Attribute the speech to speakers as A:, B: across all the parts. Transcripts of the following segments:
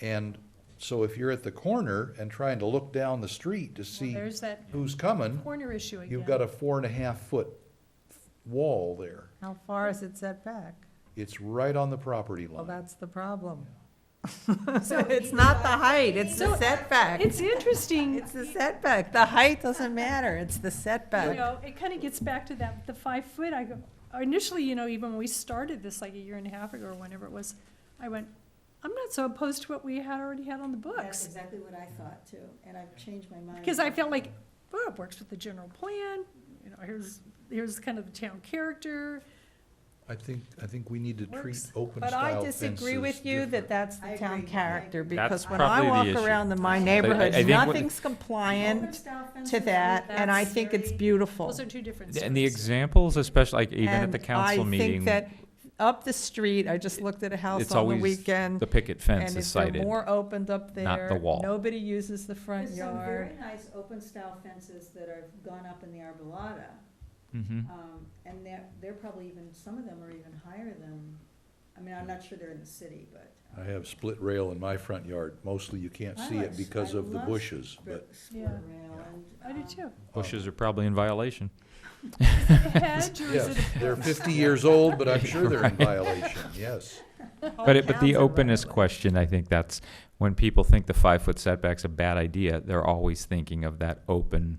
A: And so if you're at the corner and trying to look down the street to see
B: there's that
A: who's coming,
B: corner issue again.
A: you've got a four and a half foot wall there.
C: How far is it set back?
A: It's right on the property
C: Well,
A: line.
C: that's the problem.
B: So-
C: It's not the height, it's the
B: So,
C: setback.
B: It's interesting,
C: It's the setback. The height doesn't matter, it's the
B: you
C: setback.
B: know, it kind of gets back to that, the five foot, I go, initially, you know, even when we started this like a year and a half ago or whenever it was, I went, I'm not so opposed to what we had already had on the
D: That's
B: books.
D: exactly what I thought too, and I've changed my mind.
B: Because I felt like, well, it works with the general plan, you know, here's, here's kind of the town character.
A: I think, I think we need to treat
B: Works.
A: open
C: But I
A: style
C: disagree
A: fences
C: with you that
A: different.
C: that's
D: I
C: the town
D: agree.
C: character, because
E: That's
C: when I
E: probably the
C: walk
E: issue.
C: around in my
D: But I-
E: I
C: neighborhood,
E: think what-
C: nothing's compliant
D: Overstaffed
C: to
D: fences,
C: that, and I
D: that's
C: think it's
D: very-
C: beautiful.
B: Those are two different
E: And the
B: stories.
E: examples, especially like even at the
C: And
E: council
C: I think
E: meeting,
C: that up the street, I just looked at a house
E: it's
C: on the
E: always
C: weekend.
E: the picket fence
C: and
E: is
C: if they're
E: cited.
C: more opened up there.
E: not the wall.
C: Nobody uses the front
D: There's some
C: yard.
D: very nice open style fences that have gone up in the arbolada,
A: Mm-hmm.
E: Mhm.
D: um, and they're, they're probably even, some of them are even higher than, I mean, I'm not sure they're in the city, but.
A: I have split rail in my front yard. Mostly you can't
D: I
A: see
D: like
A: it
D: s-
A: because
D: I
A: of the
D: love
A: bushes,
D: spr-
A: but
D: Split
B: Yeah.
D: rail and.
B: I do
D: um,
B: too.
E: Bushes are probably in violation.
B: A hedge or is
A: yes,
B: it a
A: they're
B: post?
A: fifty years old, but I'm sure they're in violation, yes.
C: Oh,
E: But it, but the openness question, I think that's when people think the five foot setback's a bad idea, they're always thinking of that open,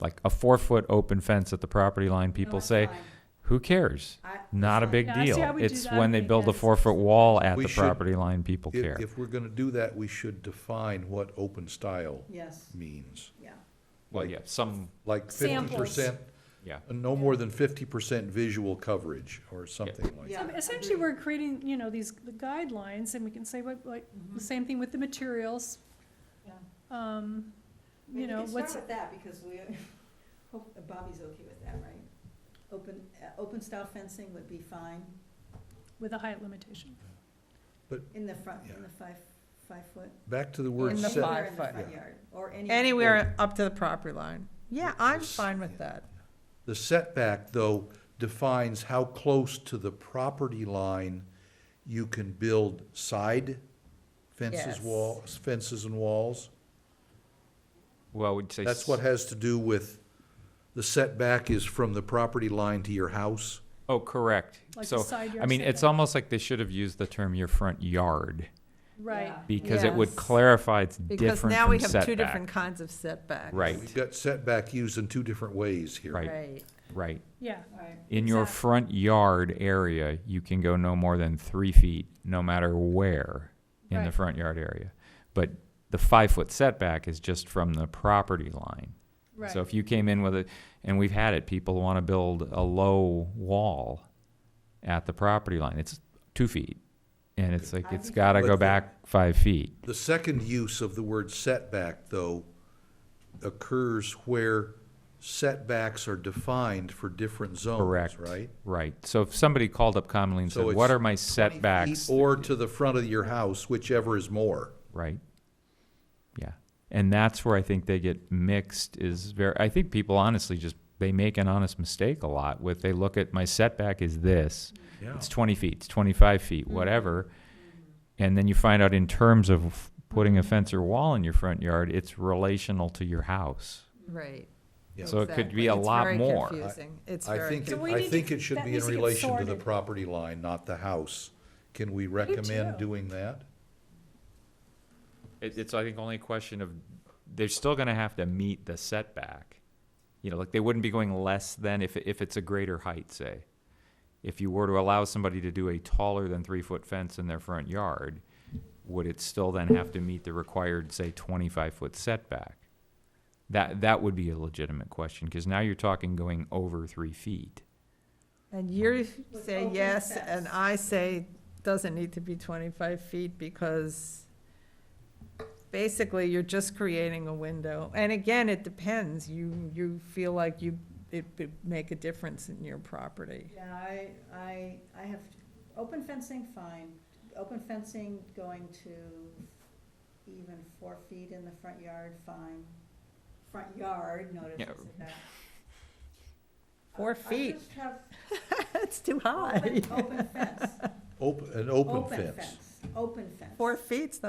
E: like a four foot open fence at the property line.
D: No,
E: People
D: it's
E: say,
D: fine.
E: who cares?
D: I-
E: Not a
D: it's
E: big
B: Yeah, see,
E: deal.
B: I would do
E: It's
B: that. I
E: when they
B: think
E: build a
B: that's-
E: four foot wall at
A: We
E: the
A: should-
E: property line, people
A: If,
E: care.
A: if we're gonna do that, we should define what open style
D: fine. Yes,
A: means.
D: yeah.
E: Well, yeah, some,
A: Like fifty percent, Uh,
E: yeah.
A: no more than fifty percent visual coverage or something like that.
D: Yeah.
B: So Essentially, we're creating, you know, these guidelines, and we can say what, like,
D: mm-hmm.
B: the same thing with the materials,
D: Yeah.
B: um,
D: Maybe
B: you know,
D: we can
B: what's,
D: start with that, because we, hope Bobby's okay with that, right? Open, uh, open style fencing would be fine
B: with a height limitation.
D: in the front, in
A: Yeah.
D: the five, five foot.
A: Back to the word
C: In the
A: set,
C: five.
D: Anywhere in the
C: foot.
D: front yard, Or any.
C: Anywhere up to the property line. Yeah, I'm fine with that.
A: the setback, though, defines how close to the property line you can build side fences,
C: Yes.
A: walls, fences and walls.
E: Well, we'd say.
A: That's what has to do with, the setback is from the property line to your house.
E: Oh, correct.
B: Like the
E: So,
B: side yard
E: I mean, it's
B: setback.
E: almost like they should have used the term your front yard
B: Right.
D: Yeah.
E: because it would
C: Yes.
E: clarify it's different
C: Because
E: from
C: now we have two
E: setback.
C: different kinds of setbacks.
E: Right.
A: We've got setback used in two different ways here.
E: Right.
C: Right.
E: Right.
B: Yeah,
D: Right,
E: In your
B: Exactly.
E: front yard area, you can go no more than three feet, no matter where in the
B: Right.
E: front yard area. But the five foot setback is just from the property line.
B: right.
E: So if you came in with it, and we've had it, people want to build a low wall at the property line. It's two feet. And it's like, it's got to
A: But
E: go
A: the-
E: back five feet.
A: The second use of the word setback, though, occurs where setbacks are defined for different zones,
E: Correct.
A: right?
E: Right. So if somebody called up commonly and
A: So
E: said,
A: it's
E: what are my
A: 20 feet
E: setbacks?
A: Or to the front of your house, whichever is more.
E: Right. Yeah. And that's where I think they get mixed is very, I think people honestly just, they make an honest mistake a lot with, they look at my setback is this. It's twenty feet, it's twenty-five feet,
A: Mm-hmm.
E: whatever. And then you find out in terms of putting a fence or wall in your front yard, it's relational to your house.
C: Right.
A: Yeah.
E: So it could
C: exactly.
E: be a
C: It's
E: lot
C: very
E: more.
C: confusing. It's
A: I
C: very
A: think,
C: confusing.
B: So we
A: I
B: need
A: think
B: to-
A: it should
B: that
A: be in
B: needs to get
A: relation to the
B: sorted.
A: property line, not the house. Can we recommend
B: too.
A: doing that?
E: It, it's, I think, only a question of, they're still gonna have to meet the setback. You know, like, they wouldn't be going less than if, if it's a greater height, say. If you were to allow somebody to do a taller than three-foot fence in their front yard, would it still then have to meet the required, say, twenty-five-foot setback? That, that would be a legitimate question, cause now you're talking going over three feet.
C: And you
D: With
C: say
D: open
C: yes, and
D: fence.
C: I say doesn't need to be twenty-five feet because basically you're just creating a window. And again, it depends. You, you feel like you, it would make a difference in your property.
D: yeah, I, I, I have, open fencing, fine, open fencing going to even four feet in the front yard, fine. Front yard, notice
E: Yeah.
D: it's about-
C: Four
D: I-
C: feet.
D: I just have
C: That's too high.
D: open, open fence.
A: Open, an open fence.
D: Open fence, open fence.
C: Four feet's